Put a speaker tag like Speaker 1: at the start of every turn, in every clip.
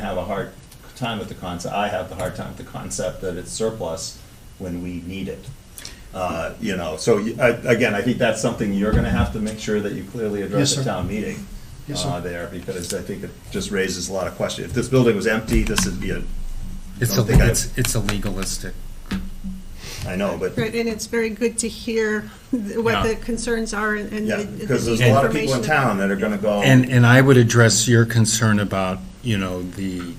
Speaker 1: have a hard time with the concept, I have the hard time with the concept that it's surplus when we need it. Uh, You know, so you- I- again, I think that's something you're going to have to make sure that you clearly
Speaker 2: Yes,
Speaker 1: address
Speaker 2: sir.
Speaker 1: at town meeting
Speaker 2: Yes, sir.
Speaker 1: uh, there, because I think it just raises a lot of questions. If this building was empty, this would be a,
Speaker 3: It's a,
Speaker 1: Don't think I-
Speaker 3: it's, it's a legalistic.
Speaker 1: I know, but
Speaker 4: Right, and it's very good to hear th- what
Speaker 3: Yeah.
Speaker 4: the concerns are and and
Speaker 1: yeah,
Speaker 4: the.
Speaker 1: because
Speaker 4: the
Speaker 1: there's a lot of people in
Speaker 4: information.
Speaker 1: town that are going to go.
Speaker 3: And, and I would address your concern about, you know, the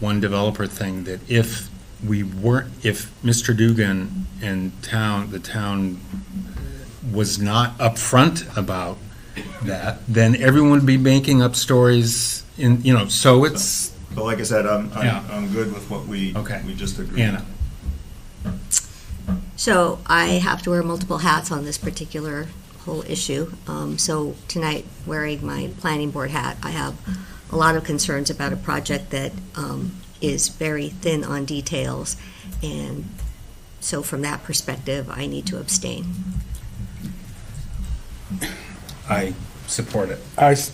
Speaker 3: one developer thing, that if we weren't, if Mr. Dugan and town, the town was not upfront about that, then everyone would be making up stories in, you know, so it's,
Speaker 1: But like I said, I'm,
Speaker 3: Yeah.
Speaker 1: I'm, I'm good with what we,
Speaker 3: Okay.
Speaker 1: we just agreed.
Speaker 3: Anna.
Speaker 5: So I have to wear multiple hats on this particular whole issue. Um, So tonight, wearing my planning board hat, I have a lot of concerns about a project that um, is very thin on details. And so from that perspective, I need to abstain.
Speaker 3: I support it.
Speaker 6: I s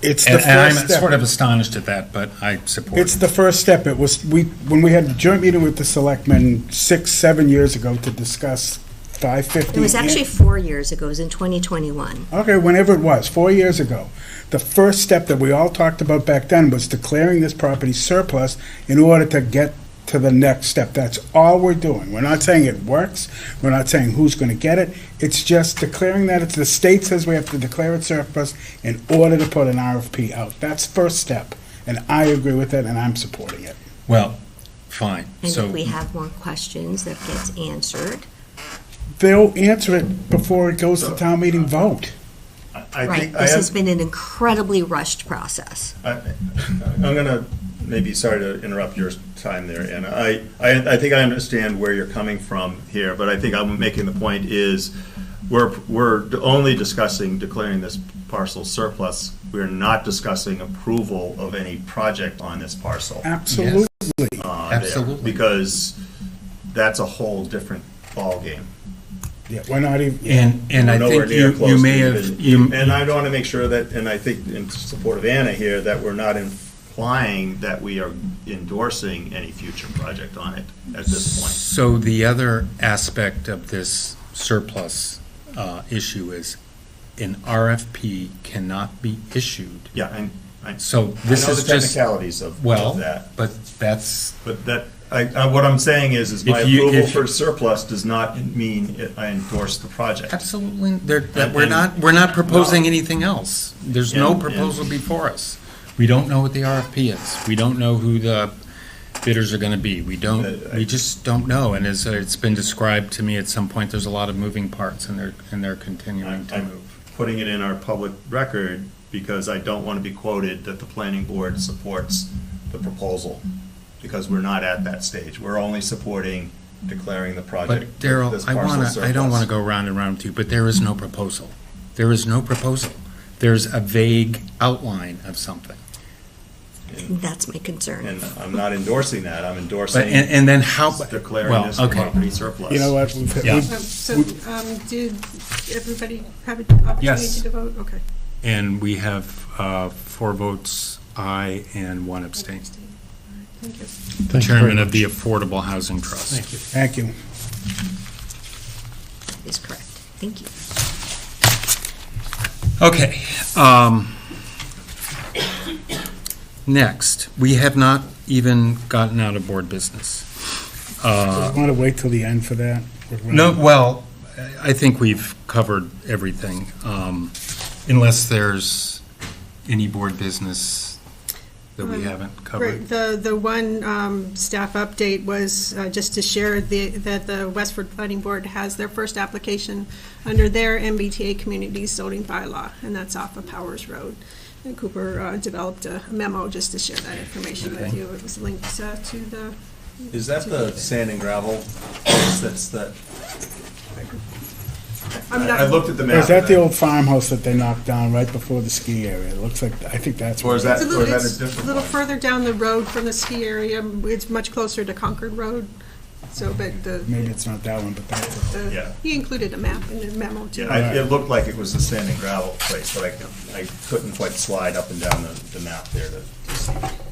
Speaker 6: it's the
Speaker 3: And and I'm
Speaker 6: first step.
Speaker 3: sort of astonished at that, but I support it.
Speaker 6: It's the first step. It was, we, when we had a joint meeting with the selectmen six, seven years ago to discuss five fifty.
Speaker 5: It was actually four years ago, it was in 2021.
Speaker 6: Okay, whenever it was, four years ago. The first step that we all talked about back then was declaring this property surplus in order to get to the next step. That's all we're doing. We're not saying it works. We're not saying who's going to get it. It's just declaring that it's, the state says we have to declare it surplus in order to put an RFP out. That's first step. And I agree with it and I'm supporting it.
Speaker 3: Well, fine,
Speaker 5: And
Speaker 3: so.
Speaker 5: if we have more questions that gets answered,
Speaker 6: They'll answer it before it goes to town meeting vote.
Speaker 1: I- I
Speaker 5: right?
Speaker 1: think, I
Speaker 5: This has
Speaker 1: have,
Speaker 5: been an incredibly rushed process.
Speaker 1: I- I'm gonna, maybe, sorry to interrupt your time there, Anna. I, I, I think I understand where you're coming from here, but I think I'm making the point is, we're, we're only discussing declaring this parcel surplus. We're not discussing approval of any project on this parcel.
Speaker 6: Absolutely.
Speaker 1: uh, there,
Speaker 3: absolutely.
Speaker 1: Because that's a whole different ballgame.
Speaker 6: Yeah, We're not even.
Speaker 3: And, and I
Speaker 1: nowhere
Speaker 3: think
Speaker 1: near
Speaker 3: you,
Speaker 1: close
Speaker 3: you
Speaker 1: to
Speaker 3: may have,
Speaker 1: even-
Speaker 3: you,
Speaker 1: And I want to make sure that, and I think in support of Anna here, that we're not implying that we are endorsing any future project on it at this point.
Speaker 3: So the other aspect of this surplus uh, issue is an RFP cannot be issued.
Speaker 1: Yeah, and I, I
Speaker 3: So this
Speaker 1: know
Speaker 3: is
Speaker 1: the
Speaker 3: just,
Speaker 1: technicalities of
Speaker 3: well,
Speaker 1: of that,
Speaker 3: but that's,
Speaker 1: but that, I, I- what I'm saying is, is my
Speaker 3: If you-
Speaker 1: approval
Speaker 3: if-
Speaker 1: for surplus does not mean it- I endorse the project.
Speaker 3: absolutely, there- that
Speaker 1: And-
Speaker 3: we're
Speaker 1: and-
Speaker 3: not, we're not proposing anything else. There's
Speaker 1: And-
Speaker 3: no
Speaker 1: and-
Speaker 3: proposal before us. We don't know what the RFP is. We don't know who the bidders are going to be. We don't,
Speaker 1: Uh, I-
Speaker 3: we just don't know. And as uh, it's been described to me at some point, there's a lot of moving parts and they're, and they're continuing
Speaker 1: I'm,
Speaker 3: to
Speaker 1: I'm
Speaker 3: move.
Speaker 1: putting it in our public record because I don't want to be quoted that the planning board supports the proposal, because we're not at that stage. We're only supporting declaring the project.
Speaker 3: But Daryl,
Speaker 1: this
Speaker 3: I
Speaker 1: parcel
Speaker 3: want to, I
Speaker 1: surplus.
Speaker 3: don't want to go round and round with you, but there is no proposal. There is no proposal. There's a vague outline of something.
Speaker 5: That's my concern.
Speaker 1: And I'm not endorsing that, I'm
Speaker 3: But, and,
Speaker 1: endorsing
Speaker 3: and then how,
Speaker 1: declaring
Speaker 3: well,
Speaker 1: this
Speaker 3: okay.
Speaker 1: property surplus.
Speaker 6: You know what? we've-
Speaker 3: Yeah.
Speaker 6: we've-
Speaker 4: Um, So, um, did everybody have an opportunity
Speaker 3: Yes.
Speaker 4: to vote? Okay.
Speaker 3: And we have uh, four votes, aye, and one abstain.
Speaker 4: Thank you.
Speaker 3: The chairman of the Affordable Housing Trust. Thank you.
Speaker 6: Thank you.
Speaker 5: is correct. Thank you.
Speaker 3: Okay. um, Next, we have not even gotten out of board business. Uh,
Speaker 6: Want to wait till the end for that? We're
Speaker 3: No,
Speaker 6: running-
Speaker 3: well, I think we've covered everything, um, unless there's any board business that we
Speaker 4: Um,
Speaker 3: haven't covered.
Speaker 4: Right, the, the one um, staff update was uh, just to share the, that the Westford Planning Board has their first application under their MBTA community zoning bylaw, and that's off of Powers Road. And Cooper uh, developed a memo just to share that information with
Speaker 3: Okay.
Speaker 4: you. It was linked uh, to the,
Speaker 1: Is that the sand and gravel, place that's the,
Speaker 4: I'm
Speaker 1: I
Speaker 4: not,
Speaker 1: looked at the map.
Speaker 6: Is that the
Speaker 1: and I-
Speaker 6: old farmhouse that they knocked down right before the ski area? It looks like, I think that's.
Speaker 1: Or is that,
Speaker 4: it's a
Speaker 1: or
Speaker 4: little,
Speaker 1: is that
Speaker 4: it's
Speaker 1: a
Speaker 4: a
Speaker 1: different
Speaker 4: little
Speaker 1: one?
Speaker 4: further down the road from the ski area. It's much closer to Concord Road, so, but the,
Speaker 6: Maybe it's not that one, but that's it.
Speaker 4: the-
Speaker 1: Yeah.
Speaker 4: he included a map in the memo too.
Speaker 1: Yeah, I- it looked like it was the sand and gravel place, but I, I couldn't quite slide up and down the, the map there to to see.